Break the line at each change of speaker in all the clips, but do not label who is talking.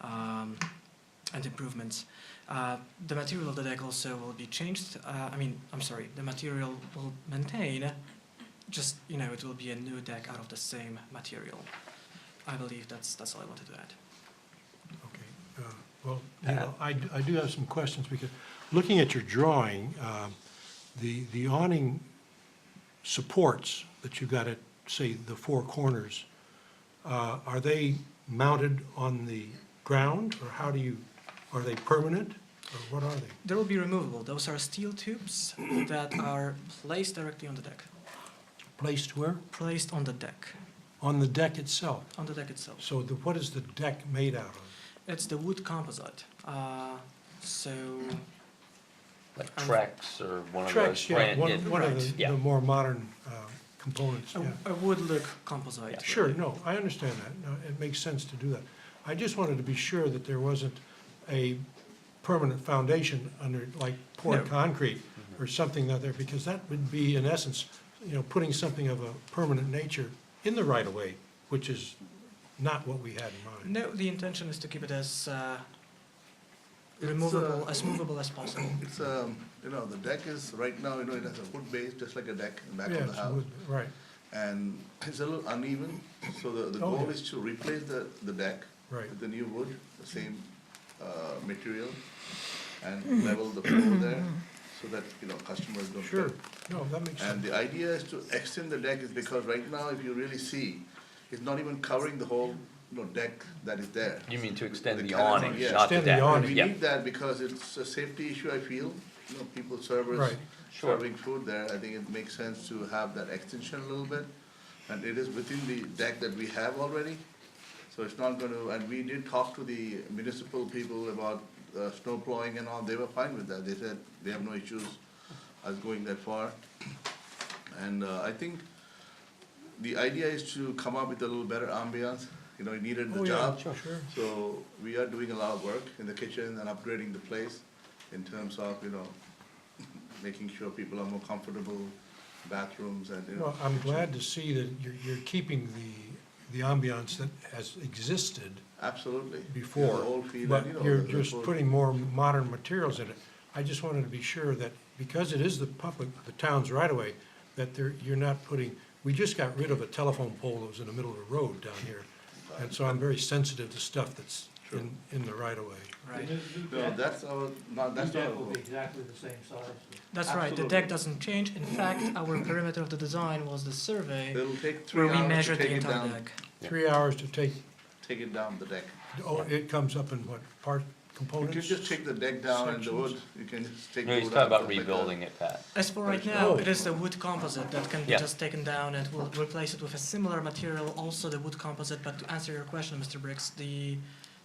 um, and improvements. Uh, the material of the deck also will be changed. Uh, I mean, I'm sorry, the material will maintain, just, you know, it will be a new deck out of the same material. I believe that's, that's all I wanted to add.
Okay, uh, well, you know, I, d- I do have some questions, because looking at your drawing, um, the, the awning supports that you got at, say, the four corners, uh, are they mounted on the ground, or how do you, are they permanent, or what are they?
They will be removable. Those are steel tubes that are placed directly on the deck.
Placed where?
Placed on the deck,
On the deck itself.
on the deck itself.
So the, what is the deck made out of?
It's the wood composite. Uh, so,
Like
Um,
Trex or one of those
Trex, yeah,
brand,
one,
yeah,
one of
Right.
the,
Yeah.
the more modern uh, components, yeah.
a, a wood look composite.
Yeah.
Sure, no, I understand that. No, it makes sense to do that. I just wanted to be sure that there wasn't a permanent foundation under, like poured
No.
concrete or something out there, because that would be, in essence, you know, putting something of a permanent nature in the right of way, which is not what we had in mind.
No, the intention is to keep it as uh,
uh,
removable, as movable as possible.
It's, um, you know, the deck is, right now, you know, it has a wood base, just like a deck in the back
Yeah,
of the
it's
house.
wood- Right,
And it's a little uneven, so the, the
Oh,
goal
yeah.
is to replace the, the deck
Right.
with the new wood, the same, uh, material, and level the floor there, so that, you know, customers don't.
sure.
get-
No, that makes
And
sense.
the idea is to extend the deck is because right now, if you really see, it's not even covering the whole, you know, deck that is there.
you mean to extend
The
the
canopy,
awning,
yeah.
not the
Extend the
deck?
awning.
And we
Yeah.
need that because it's a safety issue, I feel, you know, people servers
Right.
Sure.
serving food there, I think it makes sense to have that extension a little bit. And it is within the deck that we have already, so it's not gonna, and we did talk to the municipal people about, uh, snow plowing and all, they were fine with that, they said they have no issues us going that far. And, uh, I think the idea is to come up with a little better ambiance, you know, it needed
Oh,
the
yeah,
job.
Sure, sure.
So we are doing a lot of work in the kitchen and upgrading the place in terms of, you know, making sure people are more comfortable, bathrooms and, you know.
Well, I'm glad to see that you're, you're keeping the, the ambiance that has existed
Absolutely.
before.
The whole feel
But
and, you know.
you're
the- the
just
whole-
putting more modern materials in it. I just wanted to be sure that, because it is the public, the town's right away, that there, you're not putting, we just got rid of a telephone pole that was in the middle of the road down here. And so I'm very sensitive to stuff that's in, in the right of way.
Right.
No, that's our, no, that's not our goal.
exactly the same size.
That's right. The deck doesn't change. In fact, our perimeter of the design was the survey
It'll take
where
three
we
hours to
measured the
take it
entire
down,
deck.
Three hours to take,
take it down the deck.
oh, it comes up in what, part,
You
components?
can just take the deck down and the wood, you can just take.
No,
the
he's
wood
talking
out,
about
stuff like that.
rebuilding it, Pat.
As for right
There's
now,
no-
it is the wood composite that can be
Yeah.
just taken down and we'll replace it with a similar material, also the wood composite. But to answer your question, Mr. Briggs, the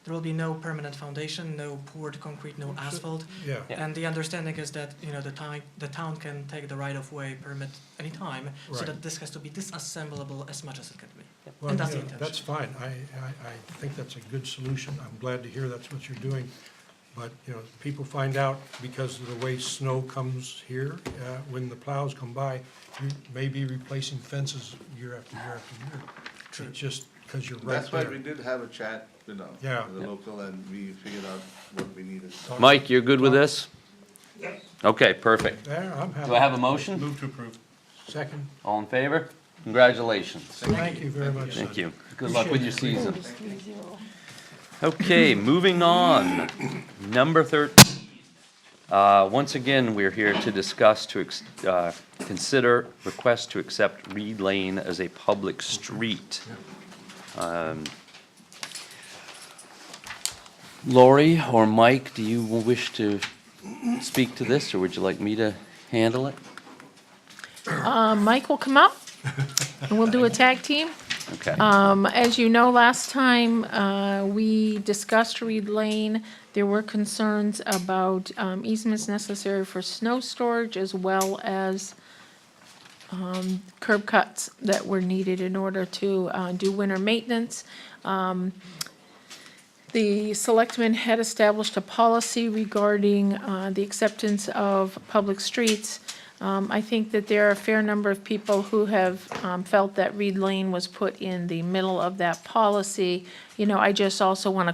there will be no permanent foundation, no poured concrete, no asphalt.
Yeah,
Yeah.
And the understanding is that, you know, the town, the town can take the right of way permit anytime, so
Right.
that this has to be disassemblable as much as it can be.
well,
And that's
you
the
know,
intention.
that's fine. I, I, I think that's a good solution. I'm glad to hear that's what you're doing. But, you know, people find out because of the way snow comes here, uh, when the plows come by, you may be replacing fences year after year after year. True. Just because you're right
That's why we
there.
did have a chat, you know,
Yeah.
with the local and we figured out what we needed.
Mike, you're good with this? Okay, perfect.
There, I'm
Do I
happy.
have a motion?
Move to approve.
Second,
All in favor? Congratulations.
thank you very much.
Thank
son.
you. Good luck with your
Appreciate
season. Okay, moving on. Number 13. Uh, Once again, we're here to discuss, to ex- uh, consider request to accept Reed Lane as a public street. Um, Lori or Mike, do you wish to speak to this, or would you like me to handle it?
Um, Mike will come up, and we'll do a tag team.
Okay.
Um, As you know, last time uh, we discussed Reed Lane, there were concerns about um, easements necessary for snow storage as well as um, curb cuts that were needed in order to uh, do winter maintenance. Um, The selectmen had established a policy regarding uh, the acceptance of public streets. Um, I think that there are a fair number of people who have um, felt that Reed Lane was put in the middle of that policy. You know, I just also want to